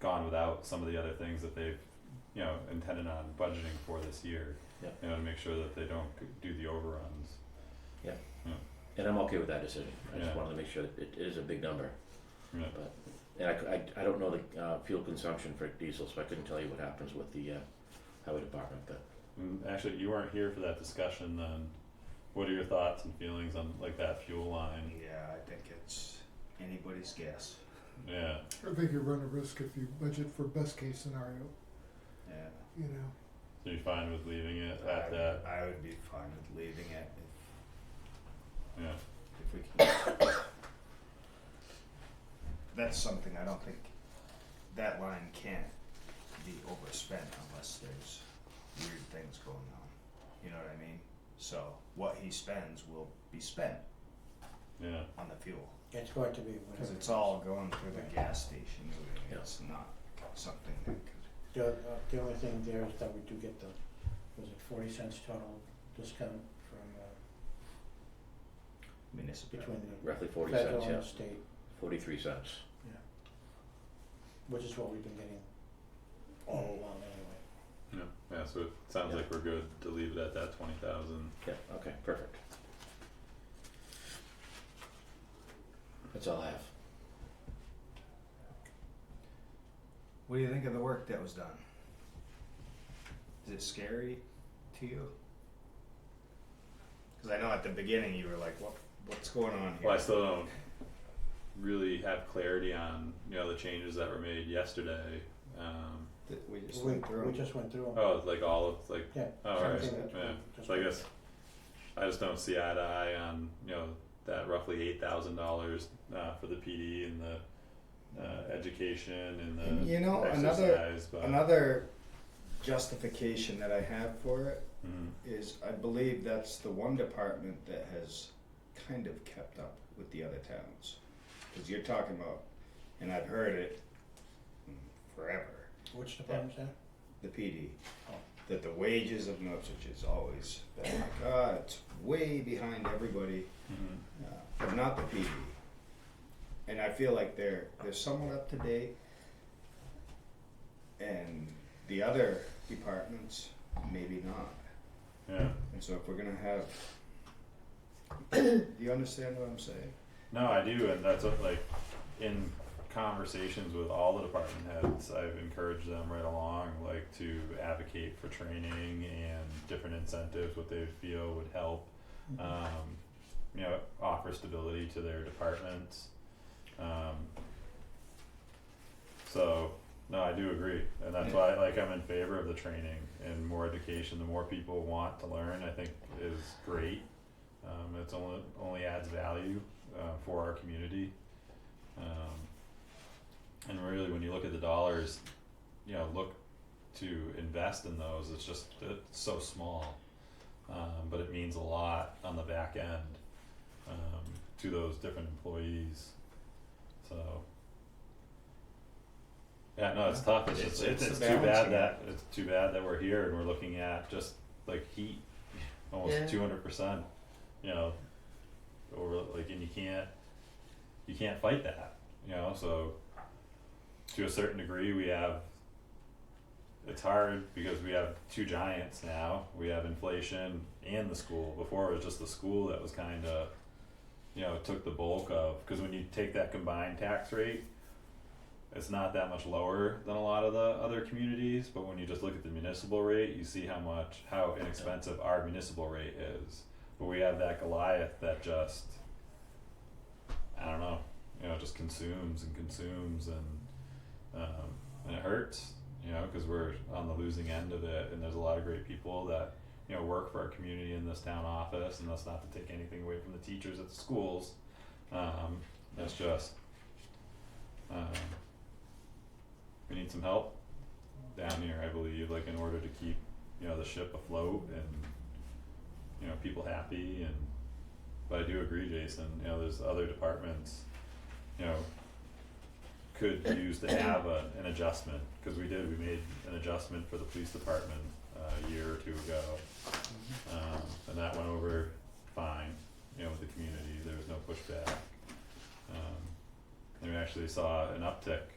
gone without some of the other things that they've, you know, intended on budgeting for this year. Yeah. You know, to make sure that they don't c- do the overruns. And I'm okay with that decision, I just Yeah. wanted to make sure that it it is a big number. Yeah. But, and I, c- I- I don't know the, uh, fuel consumption for diesel, so I couldn't tell you what happens with the, uh, highway department, but And actually, you weren't here for that discussion then. What are your thoughts and feelings on like that fuel line? Yeah, I think it's anybody's guess. Yeah, I think you run a risk if you budget for best case scenario, Yeah. you know. so you fine with leaving it I- at that? I would be fine with leaving it Yeah, if, if we can. That's something I don't think, that line can't be overspent unless there's weird things going on. You know what I mean? So what he spends will be spent yeah, on the fuel. It's going to be Cause whatever. it's all going through the gas station, really. it's not something that could, The, uh, the only thing there is that we do get the, was it forty cents total discount from, uh, municipality. between the roughly forty federal cents, and yeah, the state, forty-three cents. which is what we've been getting all along anyway. yeah, yeah, so it sounds Yeah. like we're good to leave it at that twenty thousand. Yeah, okay, perfect. That's all I have. What do you think of the work that was done? Is it scary to you? Because I know at the beginning you were like, "What? What's going on here?" Well, I still don't really have clarity on, you know, the changes that were made yesterday. Um, Th- we just We- went through. We just went through 'em. oh, like all of, like, Yeah. oh, alright, Same thing that we yeah. just So I went- guess I just don't see eye to eye on, you know, that roughly eight thousand dollars, uh, for the PD and the, uh, education and the You know, another- exercise, uh, but. Another justification that I have for it Mm, is I believe that's the one department that has kind of kept up with the other towns. Because you're talking about, and I've heard it mm, forever. Which department's that? the PD. Oh. That the wages of Norwich is always been like, ah, it's way behind everybody, mhm. uh, but not the PD. And I feel like they're they're somewhat up to date. And the other departments, maybe not. yeah, And so if we're gonna have, do you understand what I'm saying? no, I do, and that's what, like, in conversations with all the department heads, I've encouraged them right along, like, to advocate for training and different incentives, what they feel would help. um, you know, offer stability to their departments. Um, so, no, I do agree, and that's why, like, I'm in favor of the training and more education, the more people want to learn, I think is great. Um, it's only, only adds value, uh, for our community. Um, and really, when you look at the dollars, you know, look to invest in those, it's just, it's so small um, but it means a lot on the back end um, to those different employees. So, yeah, no, it's tough. It's, It's- just, it's, it's it's a too bad balancing that act. it's too bad that we're here and we're looking at just like heat, Yeah. almost two hundred percent. You know, over like, and you can't you can't fight that. You know, so to a certain degree, we have it's hard because we have two giants now. We have inflation and the school. Before it was just the school that was kind of, you know, took the bulk of. Because when you take that combined tax rate, it's not that much lower than a lot of the other communities. But when you just look at the municipal rate, you see how much how inexpensive our municipal rate is. But we have that Goliath that just, I don't know, you know, just consumes and consumes and, um, and it hurts you know, because we're on the losing end of it, and there's a lot of great people that you know work for our community in this town office, and that's not to take anything away from the teachers at the schools. Um, that's just um, we need some help down here, I believe, like in order to keep you know the ship afloat and you know people happy. And but I do agree, Jason. You know, there's other departments, you know, could use to have a, an adjustment, cause we did, we made an adjustment for the police department uh, a year or two ago. Um, and that went over fine, you know, with the community, there was no pushback. Um, and we actually saw an uptick